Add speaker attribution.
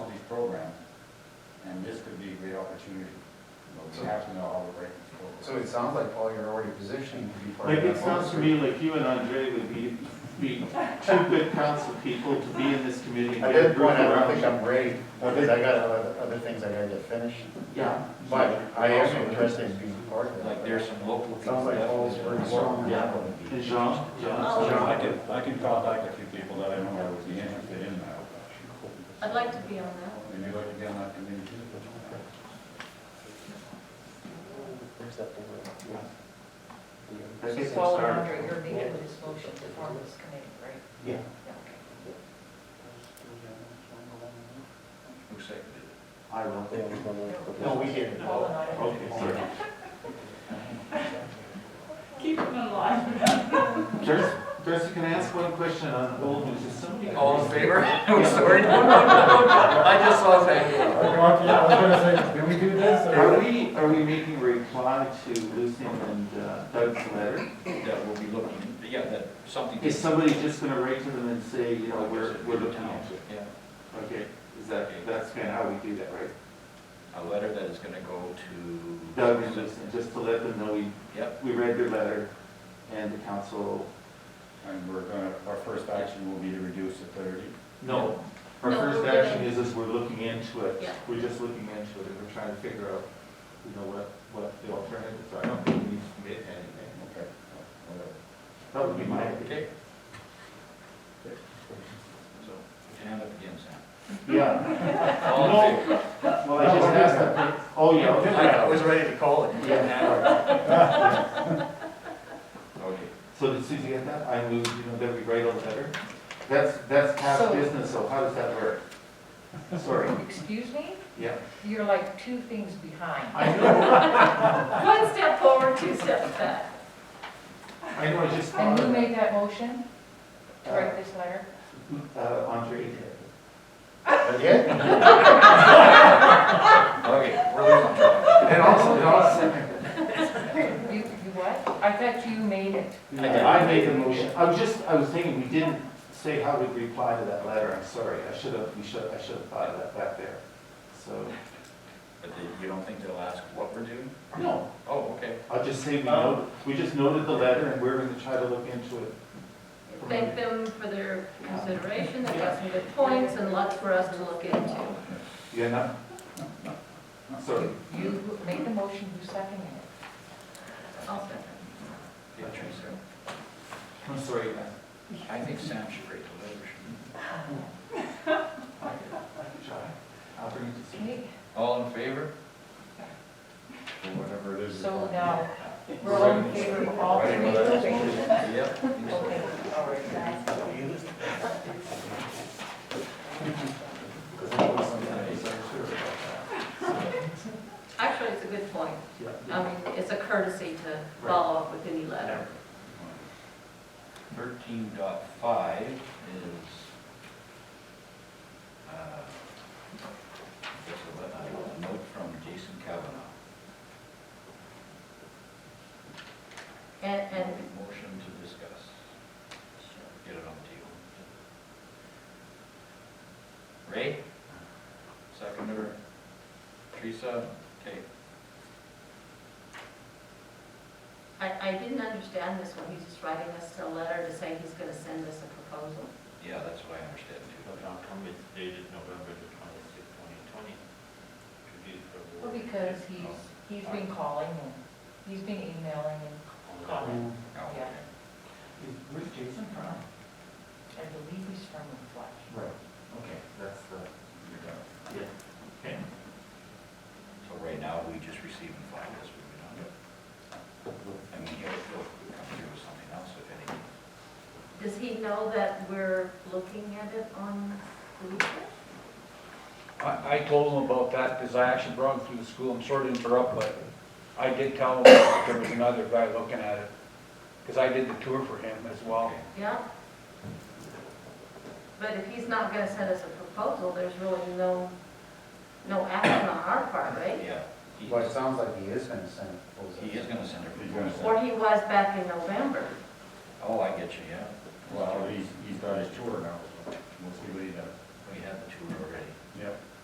Speaker 1: you, you know, we have to know all the breaking rules.
Speaker 2: So it sounds like, Paul, you're already positioning to be part of
Speaker 3: Like,
Speaker 2: that.
Speaker 3: it sounds to me like you and Andre would be, be two good council people to be in this committee. and
Speaker 2: At
Speaker 3: get a
Speaker 2: this
Speaker 3: group
Speaker 2: point, I
Speaker 3: around
Speaker 2: don't think
Speaker 3: you.
Speaker 2: I'm ready, because I got other, other things I gotta get finished,
Speaker 3: Yeah.
Speaker 2: but I am interested in being part of that.
Speaker 4: Like there's some local.
Speaker 2: Sounds like Paul's pretty strong.
Speaker 3: Yeah. And Jean, Jean.
Speaker 1: John, I can, I can contact a few people that I know that would be interested in that.
Speaker 5: I'd like to be on that.
Speaker 1: Would you like to be on that committee too?
Speaker 2: Where's that board?
Speaker 3: I think we'll
Speaker 5: Paul and
Speaker 3: start.
Speaker 5: Andre, you're making this motion to form this committee, right?
Speaker 3: Yeah.
Speaker 5: Yeah, okay.
Speaker 4: Who seconded it?
Speaker 3: I will.
Speaker 2: No, we didn't.
Speaker 5: Paul and I.
Speaker 3: Okay, sorry.
Speaker 6: Keep them alive.
Speaker 3: Darcy, Darcy, can I ask one question on old news? Is somebody?
Speaker 4: All in favor? I'm sorry, no, no, no, no, I just saw that.
Speaker 2: Yeah, I was gonna say, did we do this?
Speaker 3: Are we, are we making a reply to Lucian and uh, Doug's letter?
Speaker 4: That will be looking, yeah, that something.
Speaker 3: Is somebody just gonna write to them and say, you know, we're, we're looking at it?
Speaker 4: Yeah,
Speaker 3: Okay, is that, that's kinda how we do that, right?
Speaker 4: a letter that is gonna go to.
Speaker 3: Doug and Lucian, just to let them know we,
Speaker 4: Yep,
Speaker 3: we read their letter and the council.
Speaker 1: And we're gonna, our first action will be to reduce to thirty.
Speaker 3: No. Our
Speaker 5: No,
Speaker 3: first
Speaker 5: we're
Speaker 3: action
Speaker 5: gonna-
Speaker 3: is, is we're looking into it.
Speaker 5: Yeah.
Speaker 3: We're just looking into it and we're trying to figure out, you know, what, what the alternatives are. I don't think we need to commit anything.
Speaker 1: Okay. Whatever.
Speaker 3: That would be my opinion.
Speaker 4: okay. So, put your hand up again, Sam.
Speaker 3: Yeah.
Speaker 4: All in favor?
Speaker 3: Well, I just asked that. Oh, yeah. okay.
Speaker 4: I was ready to call it. Okay.
Speaker 3: So did Susie get that? I moved, you know, that we write a letter? That's, that's past
Speaker 5: So-
Speaker 3: business, so how does that work? Sorry,
Speaker 5: Excuse me?
Speaker 3: yeah.
Speaker 5: You're like two things behind.
Speaker 3: I know,
Speaker 5: One step forward, two steps back.
Speaker 3: I know, I just
Speaker 5: And
Speaker 3: thought
Speaker 5: who
Speaker 3: of
Speaker 5: made that motion to
Speaker 3: Uh,
Speaker 5: write this letter?
Speaker 3: uh, Andre.
Speaker 2: Yeah,
Speaker 4: Okay, we're losing track.
Speaker 3: And also, and also,
Speaker 5: You, you what? I thought you made it.
Speaker 3: I made the motion. I was just, I was thinking, we didn't say how we'd reply to that letter, I'm sorry. I should have, we should, I should have thought of that back there. So,
Speaker 4: But they- you don't think they'll ask what we're doing?
Speaker 3: no,
Speaker 4: Oh, okay.
Speaker 3: I'll just say we noted, we just noted the letter and we're gonna try to look into it.
Speaker 7: Thank them for their consideration, they
Speaker 3: Yeah.
Speaker 7: got some good points and lots for us to look into.
Speaker 3: You enough? Sorry.
Speaker 5: You made the motion, you seconded it.
Speaker 7: I'll second.
Speaker 4: Yeah, Teresa.
Speaker 3: I'm sorry.
Speaker 4: I think Sam should write the letter.
Speaker 3: I'll bring it to
Speaker 5: Okay,
Speaker 4: All in favor? Or whatever it is.
Speaker 5: so now, we're all in favor of all three of those motions?
Speaker 4: Yep.
Speaker 5: Okay, all right.
Speaker 7: Actually, it's a good point. I mean, it's a courtesy to follow up with any letter.
Speaker 4: Thirteen dot five is, uh, I guess a let- a note from Jason Kavanaugh.
Speaker 7: And, and
Speaker 4: Motion to discuss. Get it on the table. Ray? Seconder. Teresa? Okay.
Speaker 7: I, I didn't understand this one, he's just writing us a letter to say he's gonna send us a proposal.
Speaker 4: Yeah, that's what I understand too.
Speaker 8: It's dated November the twenty-sixth, twenty twenty.
Speaker 5: Well, because he's, he's been calling and he's been emailing and calling.
Speaker 4: Oh, okay.
Speaker 3: Where's Jason from?
Speaker 5: I believe he's from Flush.
Speaker 3: Right, okay, that's the,
Speaker 4: You're done.
Speaker 3: yeah. Okay.
Speaker 4: So right now, we just receive and file this, we don't do it. And we have, we'll come through with something else if anything.
Speaker 7: Does he know that we're looking at it on the weekend?
Speaker 8: I, I told him about that because I actually brought him through the school. I'm sorry to interrupt, but I did tell him that there was another guy looking at it. Because I did the tour for him as well.
Speaker 4: Okay.
Speaker 7: Yeah. But if he's not gonna send us a proposal, there's really no, no action on our part, right?
Speaker 4: Yeah, he,
Speaker 2: well, it sounds like he is gonna send a proposal.
Speaker 4: he is gonna send a
Speaker 1: He's gonna
Speaker 4: proposal.
Speaker 7: Or he was back in November.
Speaker 4: Oh, I get you, yeah.
Speaker 1: Well, he's, he's got his tour now, so we'll see what he does.
Speaker 4: We have the tour already.
Speaker 1: Yep.